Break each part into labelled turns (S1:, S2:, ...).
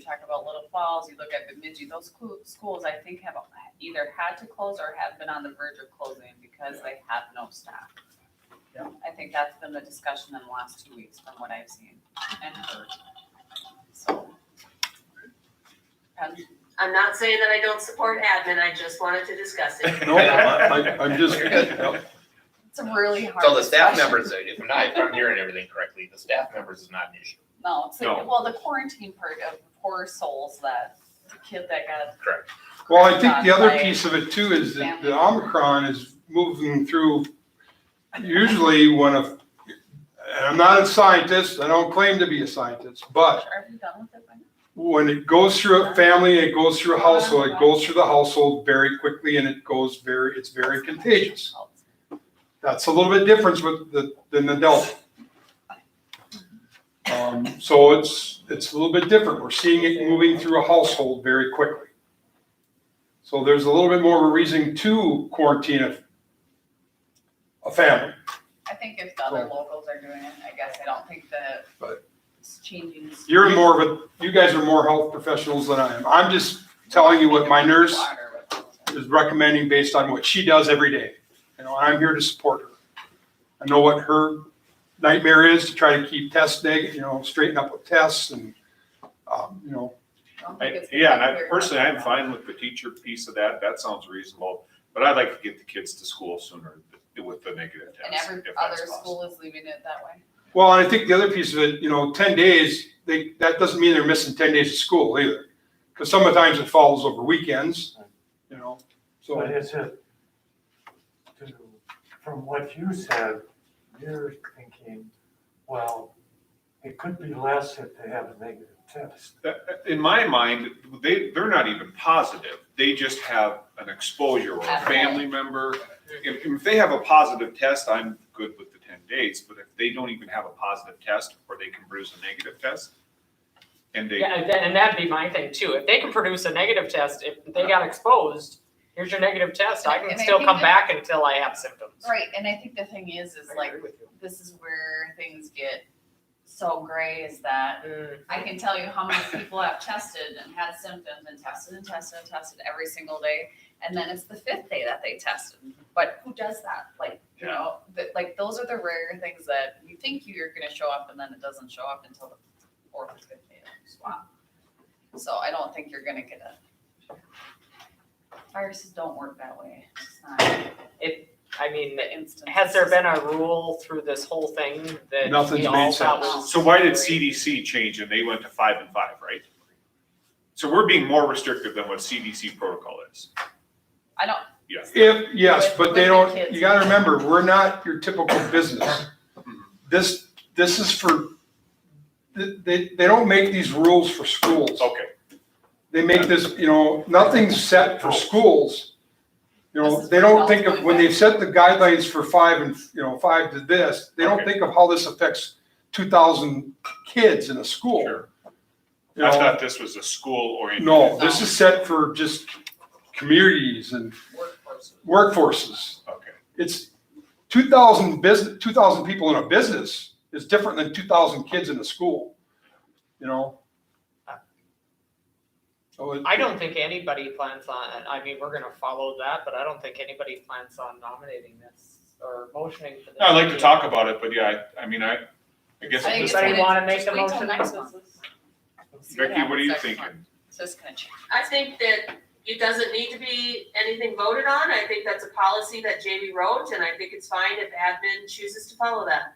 S1: talk about Little Falls, you look at Bemidji, those clu- schools, I think have either had to close or have been on the verge of closing because they have no staff.
S2: Yeah.
S1: I think that's been the discussion in the last two weeks from what I've seen and heard. So. um, Depends.
S3: I'm not saying that I don't support admin, I just wanted to discuss it.
S4: No, I, I- I'm just,
S1: It's a really hard.
S5: So the staff
S1: discussion.
S5: members, if I'm not, if I'm hearing everything correctly, the staff members is not an issue.
S1: No, it's
S4: No.
S1: like, well, the quarantine part of poor souls that the kid that got.
S5: Correct.
S4: well, I think the other
S1: Like,
S4: piece of it too is that the Omicron is moving through. Usually when a, and I'm not a scientist, I don't claim to be a scientist, but
S1: Are we done with it? by now?
S4: when it goes through a family, it goes through a household, it goes through the household very quickly and it goes very, it's very contagious. That's a little bit different with the, than the Delta. Um, so it's, it's a little bit different. We're seeing it moving through a household very quickly. So there's a little bit more of a reason to quarantine a, a family.
S1: I think if the other
S4: Right.
S1: locals are doing it, I guess I don't think that
S4: But-
S1: it's changing.
S4: You're more of a, you guys are more health professionals than I am. I'm just telling you what my nurse is recommending based on what she does every day. You know, I'm here to support her. I know what her nightmare is to try to keep tests neg, you know, straighten up with tests and, um, you know,
S1: Don't think
S6: I-
S1: it's uh, gonna
S6: Yeah, and
S1: be
S6: I
S1: clear cut
S6: personally,
S1: though.
S6: I'm fine with the teacher piece of that, that sounds reasonable, but I'd like to get the kids to school sooner with the negative
S1: And
S6: test,
S1: every
S6: if
S1: other
S6: that's possible.
S1: school is leaving it that way.
S4: well, and I think the other piece of it, you know, ten days, they, that doesn't mean they're missing ten days of school either. Cause sometimes it falls over weekends, you know,
S7: But
S4: so,
S7: is it, to, from what you said, you're thinking, well, it could be less if they have a negative test.
S6: That- In my mind, they, they're not even positive, they just have an exposure or a
S1: At home.
S6: family member. If, if they have a positive test, I'm good with the ten days, but if they don't even have a positive test, or they can bruise a negative test, and they,
S8: Yeah, and that- and that'd be my thing too. If they can produce a negative test, if they got exposed, here's your negative test, I
S1: And
S8: can
S1: I
S8: still
S1: think
S8: come
S1: that-
S8: back until I have symptoms.
S1: Right, and I think the thing is, is
S8: I
S1: like,
S8: agree with you.
S1: this is where things get so gray is that I can tell you how many people have tested and had symptoms and tested and tested and tested every single day. And then it's the fifth day that they tested. But who does that? Like, you know, that, like, those are the rare things that you think you're gonna show up and then it doesn't show up until the fourth or fifth day of the swab. So I don't think you're gonna get a. Viruses don't work that way. It's not
S8: I mean,
S1: the instant.
S8: has there been a rule through this whole thing that
S4: Nothing's
S8: we all
S4: made
S8: thought
S1: sense.
S8: was-
S6: So why did CDC change and they went to five and five, right? So we're being more restrictive than what CDC protocol is.
S1: I don't,
S4: if, yes, but they
S1: With- with the
S4: don't,
S1: kids.
S4: you gotta remember, we're not your typical business. This, this is for, th- they, they don't make these rules for schools.
S6: Okay,
S4: they make this, you know, nothing's set for schools. You know, they don't think of, when they've set the guidelines for five and, you know, five to this, they don't think of how this affects two thousand kids in a school.
S6: sure.
S4: You
S6: I
S4: know,
S6: thought this was a school oriented.
S4: no, this is set for just communities and
S1: workforce.
S4: workforces.
S6: Okay,
S4: It's two thousand business, two thousand people in a business is different than two thousand kids in a school, you know? So it-
S8: I don't think anybody plans on, I mean, we're gonna follow that, but I don't think anybody plans on nominating this or motioning for this.
S6: No, I'd like to talk about it, but yeah, I, I mean, I, I guess
S1: I think it's
S6: at this
S1: gonna-
S8: Anybody
S6: point,
S8: wanna make
S1: just
S8: the
S1: wait till
S8: motion?
S1: next month. See
S6: Becky, what are
S1: happens
S6: you
S1: next month.
S6: thinking?
S1: So it's gonna change.
S3: I think that it doesn't need to be anything voted on, I think that's a policy that Jamie wrote, and I think it's fine if admin chooses to follow that.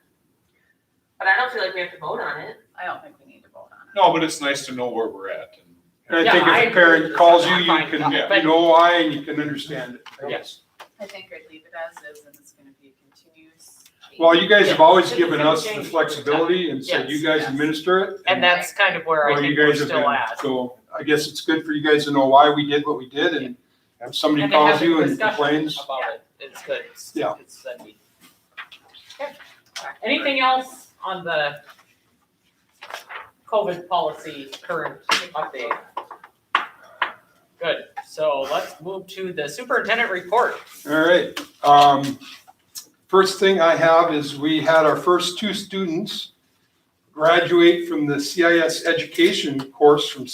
S3: But I don't feel like we have to vote on it.
S1: I don't think we need to vote on
S6: No, but it's nice to know where we're at. and-
S4: And I
S8: Yeah,
S4: think
S8: I
S4: if a
S8: agree with
S4: parent
S8: you.
S4: calls you,
S8: I'm
S4: you
S8: fine.
S4: can,
S6: Yeah.
S4: you know why, and you can understand it.
S8: Yes.
S1: it. I think I'd leave it as is and it's gonna be a continuous. change.
S4: Well, you guys have always
S8: Yeah.
S4: given us the flexibility and said you guys
S1: Yes.
S4: administer it.
S8: And that's kind of where I
S4: well, you
S8: think we're
S4: guys have
S8: still
S4: been.
S8: at.
S4: So I guess it's good for you guys to know why we did what we did and if somebody
S8: And then
S4: calls
S8: having
S4: you and
S8: discussion
S4: complains.
S8: About it, it's good. It's-
S4: Yeah.
S8: It's Sunday. Anything else on the COVID policy current update? Good, so let's move to the superintendent report.
S4: All right. Um, first thing I have is we had our first two students graduate from the CIS education course from